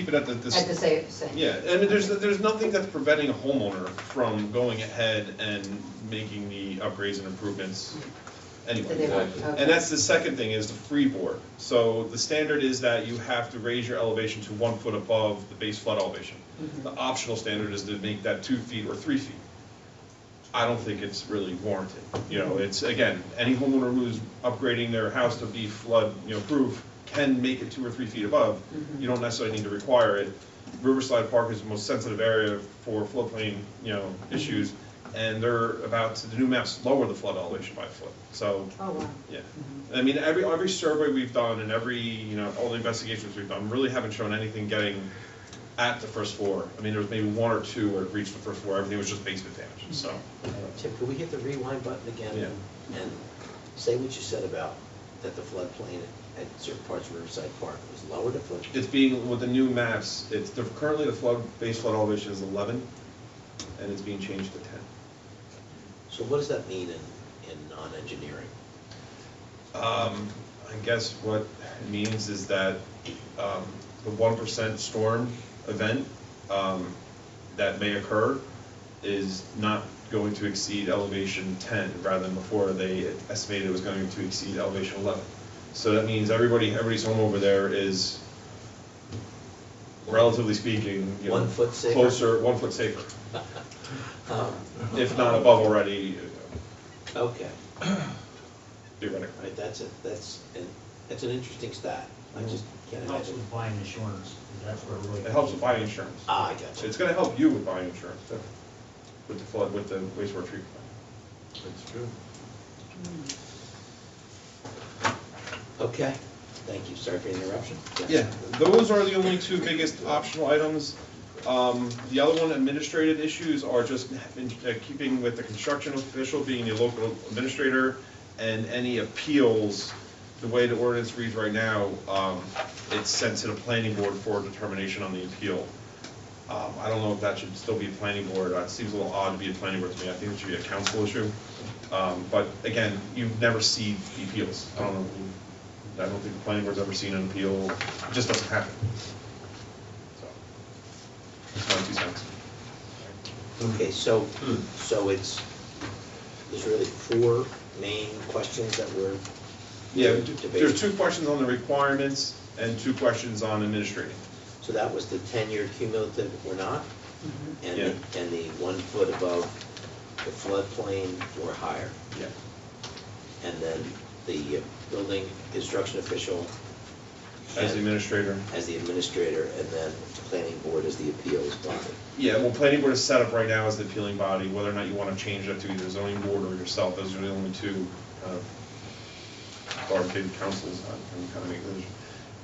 keep it at the, this. At the same, same. Yeah, I mean, there's, there's nothing that's preventing a homeowner from going ahead and making the upgrades and improvements That they anyway. want, Exactly. okay. And that's the second thing, is the freeboard. So the standard is that you have to raise your elevation to one foot above the base flood elevation. The optional standard is to make that two feet or three feet. I don't think it's really warranted. You know, it's, again, any homeowner who's upgrading their house to be flood, you know, proof can make it two or three feet above. You don't necessarily need to require it. Riverside Park is the most sensitive area for floodplain, you know, issues, and they're about, to the new maps lower the flood elevation by a foot. So, Oh, wow. yeah. I mean, every, every survey we've done and every, you know, all the investigations we've done, really haven't shown anything getting at the first floor. I mean, there was maybe one or two where it reached the first floor, everything was just basement damage, so. Chip, Uh, could we hit the rewind button again? Yeah. And say what you said about that the floodplain at certain parts of Riverside Park was lower to flood. It's being, with the new maps, it's, the- currently the flood, base flood elevation is eleven, and it's being changed to ten. So what does that mean in, in non-engineering? Um, I guess what it means is that, um, the one percent storm event, um, that may occur is not going to exceed elevation ten, rather than before they estimated it was going to exceed elevation eleven. So that means everybody, everybody's home over there is, relatively speaking, you know. One foot safer. Closer, one foot safer, Um, if not above already, Okay, theoretically. all right, that's a, that's, an that's an interesting stat. Mm-hmm. I just can't It helps imagine. with buying insurance, because that's where really. It helps with buying insurance. Ah, I got you. It's gonna help you with buying insurance, too, with the flood, with the wastewater treatment. That's true. Okay, thank you, sorry for the interruption. Yes. Yeah, those are the only two biggest optional items. Um, the other one, administrative issues, are just in- uh, keeping with the construction official being the local administrator, and any appeals, the way the ordinance reads right now, um, it's sent to the planning board for determination on the appeal. Um, I don't know if that should still be a planning board, Uh, it seems a little odd to be a planning board to me, I think it should be a council issue. Um, but again, you never see the appeals, I don't know, I don't think the planning board's ever seen an appeal, it just doesn't happen. So, that's my two cents. Mm-hmm. Okay, so, Mm. so it's, there's really four main questions that we're Yeah, debating. there's two questions on the requirements and two questions on administrating. So that was the ten-year cumulative or not? And, the- Yeah. and the one foot above the floodplain or higher? Yeah. And then the uh, building construction official? As the and- administrator. As the administrator, and then the planning board as the appeals body? Yeah, well, planning board is set up right now as the appealing body, whether or not you want to change that to either zoning board or yourself, those are the only two kind of authoritative councils on on kind of make those.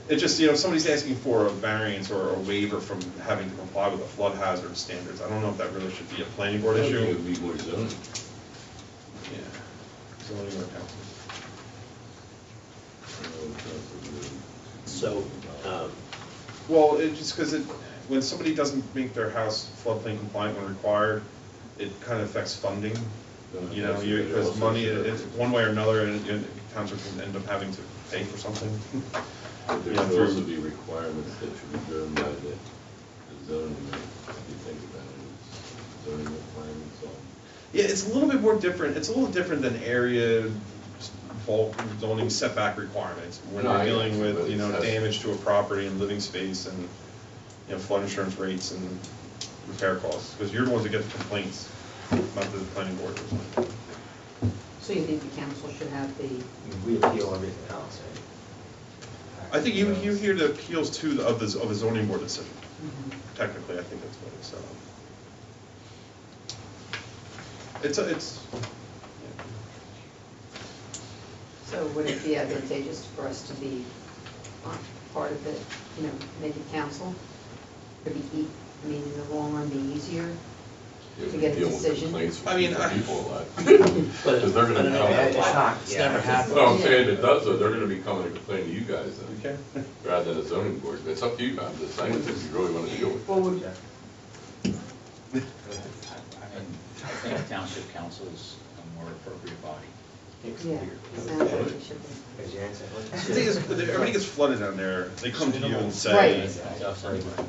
It just, you know, if somebody's asking for a variance or a waiver from having to comply with the flood hazard standards, I don't know if that really should be a planning board I think It issue. would be more zoning. Yeah, zoning or council. So, um, Well, it just, because it, when somebody doesn't make their house floodplain compliant when required, it kind of affects funding. You know, you, because money, it's one way or another, and you know, towns are gonna end up having to pay for something. But there Yeah, should through- also be requirements that should be driven by the the zoning, if you think about it, zoning requirements on. Yeah, it's a little bit more different, it's a little different than area bulk zoning setback requirements. When No, you're I- dealing with, you know, but it's- damage to a property and living space and, you know, flood insurance rates and repair costs, because you're the ones that get the complaints, not the planning board or something. So you think the council should have the, We appeal everything else, right? I think you, you hear the appeals too of the, of the zoning board decision, technically, I think that's what it's, um. It's, a- it's, so would it be advantageous for us to be on part of it, you know, make it council? It'd be, ea- I mean, in the long run, be easier to get a Deal with decision. complaints from I mean, I- People a lot. Because they're But- gonna but I mean, It's come. not, It's yeah. never happened. No, I'm saying it does, though, they're gonna be coming to complain to you guys yeah, then, okay? rather than the zoning board. But It's up to you, I'm just saying, if you really wanna deal with it. Well, would, I mean, I think township council is a more appropriate body. Yeah, it sounds like it should be. as Jan said, let's- The thing is, everybody gets flooded down there, they come to you and say. Right. That's- that's-